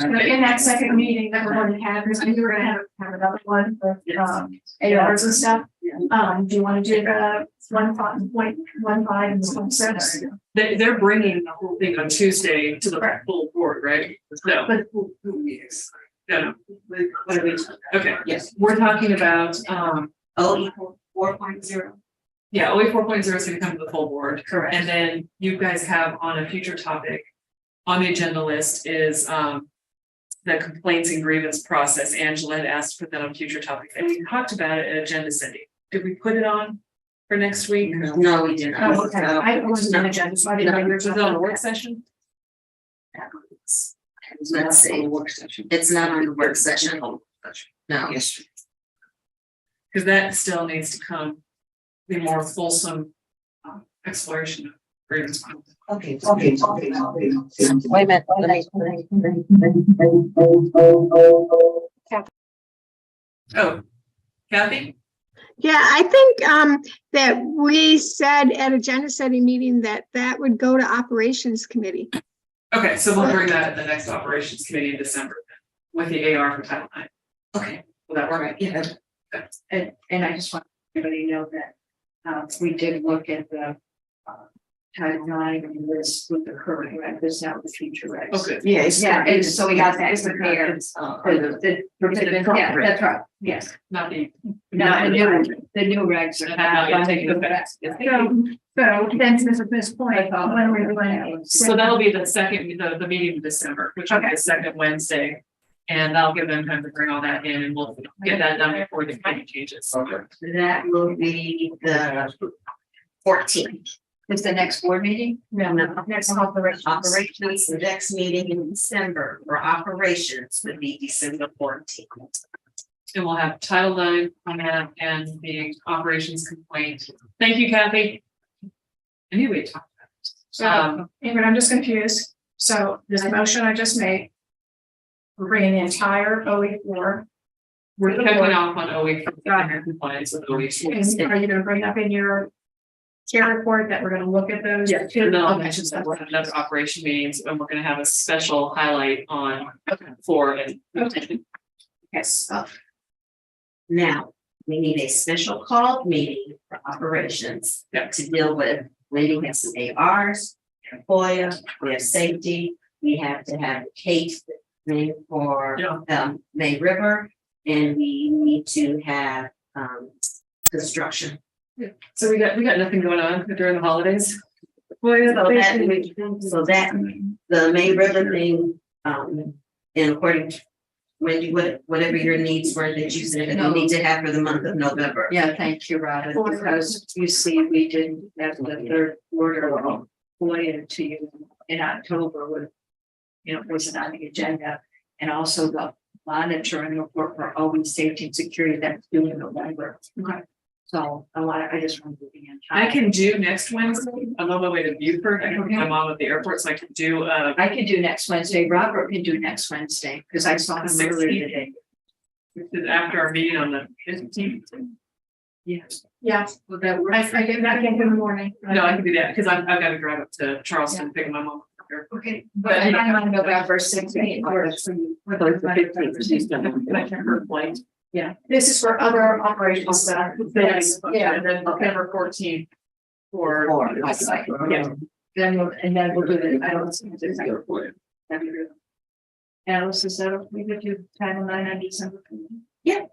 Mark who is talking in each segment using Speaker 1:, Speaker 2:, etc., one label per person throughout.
Speaker 1: So in that second meeting that we're going to have, because we were gonna have, have another one for, um, ARs and stuff. Um, do you want to do the one five, point one five and one six?
Speaker 2: They, they're bringing the whole thing on Tuesday to the full board, right? So.
Speaker 1: But-
Speaker 2: Who, who is? No, no. What are we, okay. Yes. We're talking about, um,
Speaker 3: O equal four point zero.
Speaker 2: yeah, OE four point zero is gonna come to the full board.
Speaker 3: Correct.
Speaker 2: And then you guys have on a future topic, on the agenda list is, um, the complaints and grievance process. Angela had asked for that on future topic, and we talked about it at Agenda City. Did we put it on for next week?
Speaker 3: No, we did not.
Speaker 1: Oh, okay, I wasn't on the agenda, so I didn't know you were
Speaker 2: Was it on the
Speaker 1: talking.
Speaker 2: work session?
Speaker 3: Let's see, it's not on the work session, no.
Speaker 2: Yes. Cause that still needs to come, the more fulsome uh, exploration of grievance.
Speaker 4: Okay, okay, okay, okay.
Speaker 5: Wait a minute, let me-
Speaker 2: Oh, Kathy?
Speaker 6: Yeah, I think um that we said at a agenda setting meeting that that would go to operations committee.
Speaker 2: Okay, so we'll bring that at the next operations committee in December with the AR for Title IX.
Speaker 3: Okay.
Speaker 2: Will that
Speaker 3: All
Speaker 2: work?
Speaker 3: right, yeah,
Speaker 4: And, and I just want everybody to know that, uh, we did look at the, uh, Title IX and this with the current rec, this now the future regs.
Speaker 2: Okay.
Speaker 4: Yes.
Speaker 3: Yeah, and so we got that
Speaker 4: It's the
Speaker 3: prepared.
Speaker 4: current, uh, or the- the- Yeah, that's right, yes.
Speaker 2: Not the.
Speaker 4: No, and the new, the new regs are.
Speaker 2: And now you're taking the facts.
Speaker 1: So, so then to this point, when are we going to?
Speaker 2: So that'll be the second, the, the meeting in December, which will be the second Wednesday. And I'll give them time to bring all that in and we'll get that done before the committee changes.
Speaker 4: That will be the
Speaker 3: fourteen.
Speaker 4: It's the next board meeting?
Speaker 1: No, no, next I'll have the rest of the rest.
Speaker 3: Operations, the next meeting in December for operations would be December fourteenth.
Speaker 2: And we'll have Title IX on that and the operations complaint. Thank you, Kathy. I knew we had talked about it. Um,
Speaker 1: Ingrid, I'm just confused. So this motion I just made. We're bringing the entire OE four.
Speaker 2: we're checking off on OE compliance with OE.
Speaker 1: And are you gonna bring up in your chair report that we're gonna look at those?
Speaker 2: Yeah,
Speaker 1: two?
Speaker 2: no, I
Speaker 1: Okay.
Speaker 2: mentioned that we're having another operation meetings and we're gonna have a special highlight on four and.
Speaker 1: Okay.
Speaker 3: Yes. Now, we need a special call meeting for operations
Speaker 2: Yeah.
Speaker 3: to deal with, we have some ARs, FOIA, we have safety, we have to have a case made for
Speaker 2: Yeah.
Speaker 3: um May River, and we need to have um construction.
Speaker 2: So we got, we got nothing going on during the holidays? Well,
Speaker 3: So that, so that, the May River thing, um, and according to Wendy, what, whatever your needs were that you said, that
Speaker 4: No.
Speaker 3: we need to have for the month of November.
Speaker 4: Yeah, thank you, Robin, because you see, we didn't have the third order of FOIA to you in October with. You know, wasn't on the agenda, and also the monitoring report for always safety and security that's due in November.
Speaker 2: Okay.
Speaker 4: So I want, Oh, I just wanted to be in.
Speaker 2: I
Speaker 4: time.
Speaker 2: can do next Wednesday. I'm on my way to Beaufort. I can my mom at the airport, so I can do, uh,
Speaker 4: I can do next Wednesday, Robert can do next Wednesday, because I saw him earlier today.
Speaker 2: after our meeting on the fifteenth.
Speaker 4: Yes.
Speaker 1: Yeah,
Speaker 4: Will that work?
Speaker 1: I, I get that in the morning.
Speaker 2: No, I can do that, because I've, I've got to drive up to Charleston, pick up my mom.
Speaker 1: Okay.
Speaker 4: But
Speaker 2: I-
Speaker 4: I'm on November sixteenth, or it's from-
Speaker 2: I can reflect.
Speaker 1: This is for other operations that are.
Speaker 2: Yes,
Speaker 1: Yeah.
Speaker 2: and then November fourteenth. For.
Speaker 4: Or, like, like,
Speaker 2: Yeah.
Speaker 4: Then, we'll- and then we'll do the, I don't see this. Alice, is that, okay with you title nine on December? Yeah.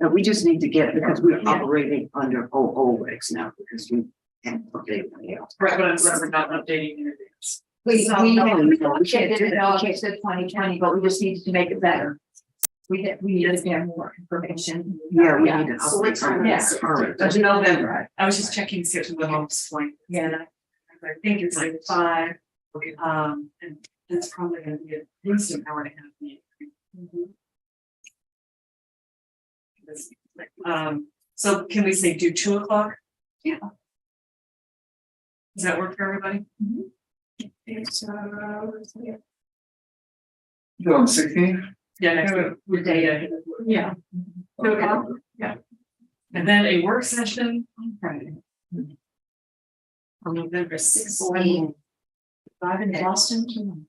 Speaker 7: No, we just need to get, because we're
Speaker 4: Yeah.
Speaker 7: operating under O O regs now, because we. And, okay, yeah.
Speaker 2: Right, but I'm sorry, not updating your dates.
Speaker 4: We,
Speaker 7: So,
Speaker 4: we,
Speaker 7: no,
Speaker 4: we
Speaker 7: no, we can't
Speaker 4: did
Speaker 7: do
Speaker 4: it in August of twenty twenty, but we just needed to make it better. We had, we needed to have more information.
Speaker 7: Yeah, we need to.
Speaker 3: So we're trying
Speaker 7: update
Speaker 3: to-
Speaker 7: our- our regs.
Speaker 3: Of November.
Speaker 2: I was just checking, see if the mom's flying.
Speaker 4: Yeah, and I-
Speaker 2: I think it's like five, um, and it's probably gonna be at least an hour and a half Mm-hmm. meeting. This, Um, so can we say do two o'clock?
Speaker 4: Yeah.
Speaker 2: Does that work for everybody?
Speaker 1: So,
Speaker 2: Yeah. next week.
Speaker 4: The day
Speaker 2: Yeah.
Speaker 1: yeah,
Speaker 2: Two o'clock? Yeah. And then a work session on Friday.
Speaker 3: On November sixteenth.
Speaker 4: Robin Boston.